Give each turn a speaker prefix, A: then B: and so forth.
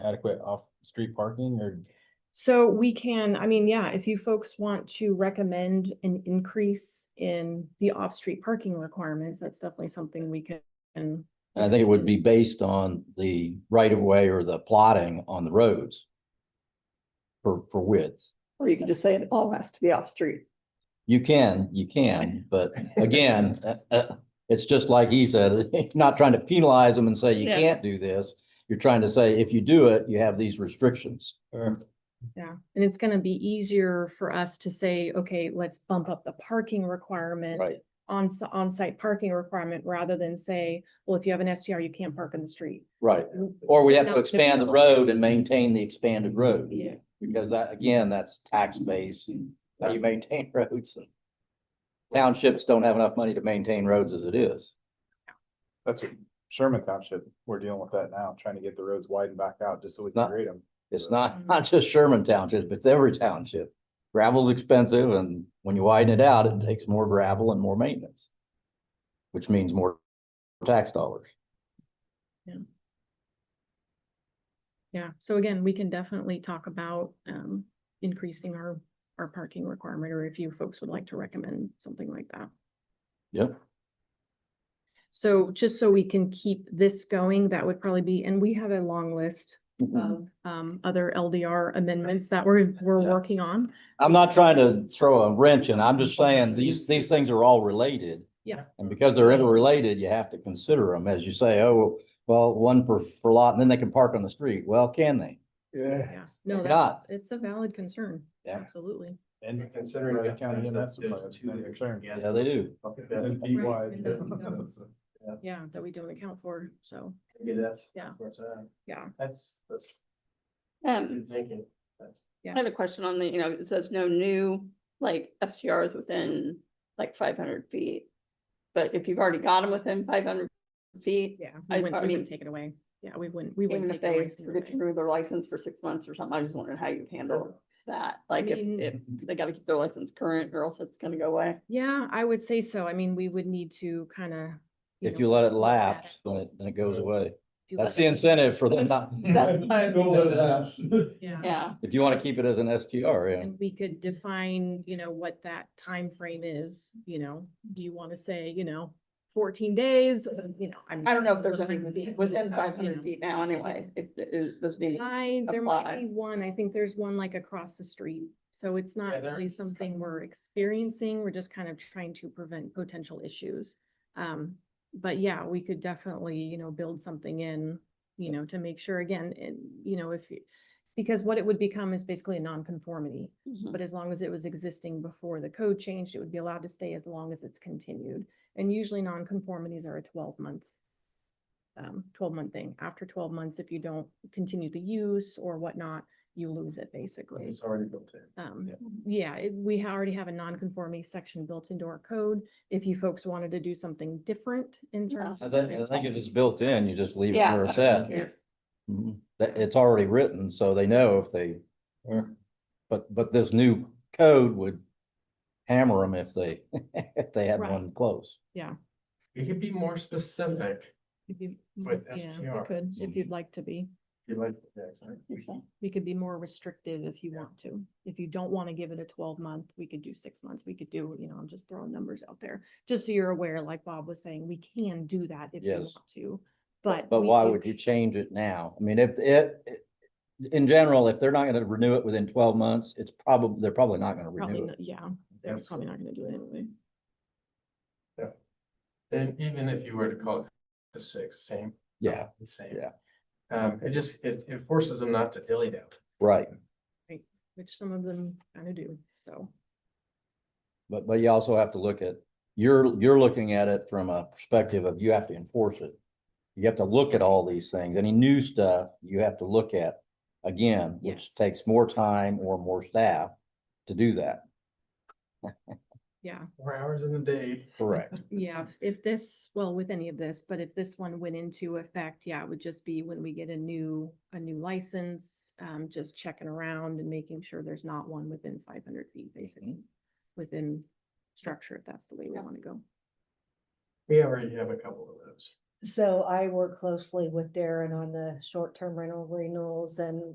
A: adequate off-street parking or?
B: So we can, I mean, yeah, if you folks want to recommend an increase in the off-street parking requirements, that's definitely something we can.
C: And I think it would be based on the right of way or the plotting on the roads. For, for width.
D: Or you could just say it all has to be off street.
C: You can, you can, but again, uh, uh, it's just like he said, not trying to penalize them and say you
B: Yeah.
C: can't do this. You're trying to say if you do it, you have these restrictions.
B: Yeah, and it's gonna be easier for us to say, okay, let's bump up the parking requirement. On, on-site parking requirement rather than say, well, if you have an STR, you can't park in the street.
C: Right. Or we have
B: Not
C: to
B: to
C: expand the
B: penalize.
C: road and maintain the expanded road.
B: Yeah.
C: Because that, again, that's tax base and how you maintain roads. and Townships don't have enough money to maintain roads as it is.
A: That's what Sherman Township, we're dealing with that now, trying to get the roads widened back out just so we can
C: Not-
A: grade them.
C: It's not, not just Sherman Township, it's every township. Gravel's expensive and when you widen it out, it takes more gravel and more maintenance. Which means more tax dollars.
B: Yeah, so again, we can definitely talk about, um, increasing our, our parking requirement, or if you folks would like to recommend something like that.
C: Yep.
B: So just so we can keep this going, that would probably be, and we have a long list of um other LDR amendments that we're we're
C: Mm-hmm. Yeah.
B: working on.
C: I'm not trying to throw a wrench in. I'm just saying these, these things are all related.
B: Yeah.
C: And because they're interrelated, you have to consider them as you say, oh, well, one per, per lot and then they can park on the street. Well, can they?
A: Yeah.
B: Yeah. No,
C: Why
B: that's, it's a valid concern.
C: Yeah.
B: Absolutely.
A: And considering the county and that's.
C: Yeah, they do.
A: And be
B: Right,
A: wide.
B: and then we don't. Yeah, that we don't account for, so.
E: Yeah, that's.
B: Yeah.
E: where it's at.
B: Yeah.
E: That's, that's
D: Um,
E: good thinking.
B: Yeah.
F: I have a question on the, you know, it says no new, like, STRs within like five hundred feet. But if you've already got them within five hundred feet,
B: Yeah.
F: I-
B: We wouldn't,
F: I
B: we
F: mean-
B: wouldn't take it away. Yeah, we wouldn't, we
F: even
B: wouldn't
F: if
B: take it away.
F: they
B: from
F: forget to
B: anybody.
F: renew their license for six months or something, I just wondering how you handle that. Like, if,
B: mean-
F: if they gotta keep their license current or else it's gonna go away.
B: Yeah, I would say so. I mean, we would need to kind of.
C: If you let it lapse, then it, then it goes away. That's the
B: incentive.
C: incentive for them not,
F: That's my-
E: Don't let it lapse.
B: Yeah,
F: Yeah,
C: if you want to keep it as an STR, yeah.
B: and we could define, you know, what that time frame is, you know, do you want to say, you know, fourteen days, Uh, you know, I'm.
F: I don't know if there's any
B: Yeah.
F: within
B: Yeah.
F: five hundred feet now anyway, if, if, there's any.
B: I, there might
F: apply.
B: be one, I think there's one like across the street, so it's
E: Yeah,
B: not
E: there-
B: really something we're experiencing, we're just kind of trying to prevent potential issues. Um, but yeah, we could definitely, you know, build something in, you know, to make sure again, and, you know, if, you- because what it would become is basically a nonconformity.
F: Mhm.
B: but as long as it was existing before the code changed, it would be allowed to stay as long as it's continued. And usually nonconformities are a twelve month, um, twelve month thing. After twelve months, if you don't continue the use or whatnot, you lose it basically.
E: It's already built in.
B: Um, yeah, it- we ha- already have a nonconformity section built into our code. If you folks wanted to do something different in
F: Yeah.
B: terms.
C: I
B: of
C: think, I think if it's built in, you just leave it
F: Yeah.
C: where it's
F: Just
C: at.
F: curious.
C: Mhm. That, it's already written, so they know if they,
A: Yeah.
C: but, but this new code would hammer them if they, if they had
B: Right.
C: one close.
E: We could be more specific.
B: if you-
E: With
B: Yeah, we
E: STRs.
B: could, if
C: Mm-hmm.
B: you'd like to be.
E: You like the accent?
B: we could be more restrictive if you want to. If you don't want to give it a twelve month, we could do six months, we could do, you know, I'm just throwing numbers out there. Just so you're aware, like Bob was saying, we can do that if you
C: Yes.
B: want to, but.
C: But
B: we
C: why
B: do-
C: would you change it now? I mean, if, if, in general, if they're not gonna renew it within twelve months, it's probably, they're probably not gonna
B: Probably,
C: renew
B: not-
C: it.
B: yeah, they're
E: Yes.
B: probably not gonna do it anyway.
E: And even if you were to call it the six, same.
C: Yeah,
E: the Same.
C: yeah.
E: Um, it just, it, it forces them not to dilly dally.
C: right.
B: Which some of them kind of do, so.
C: But, but you also have to look at, you're, you're looking at it from a perspective of you have to enforce it. You have to look at all these things. Any new stuff you have to look at again,
B: Yes.
C: which takes more time or more staff to do that.
B: Yeah,
E: Four hours in a day.
C: Correct.
B: yeah, if- if this, well, with any of this, but if this one went into effect, yeah, it would just be when we get a new, a new license. Um, just checking around and making sure there's not one within five hundred feet, basically. within structure, if that's the way we
F: Yeah.
B: want to go.
E: We already have a couple of those.
G: So I work closely with Darren on the short-term rental renewals and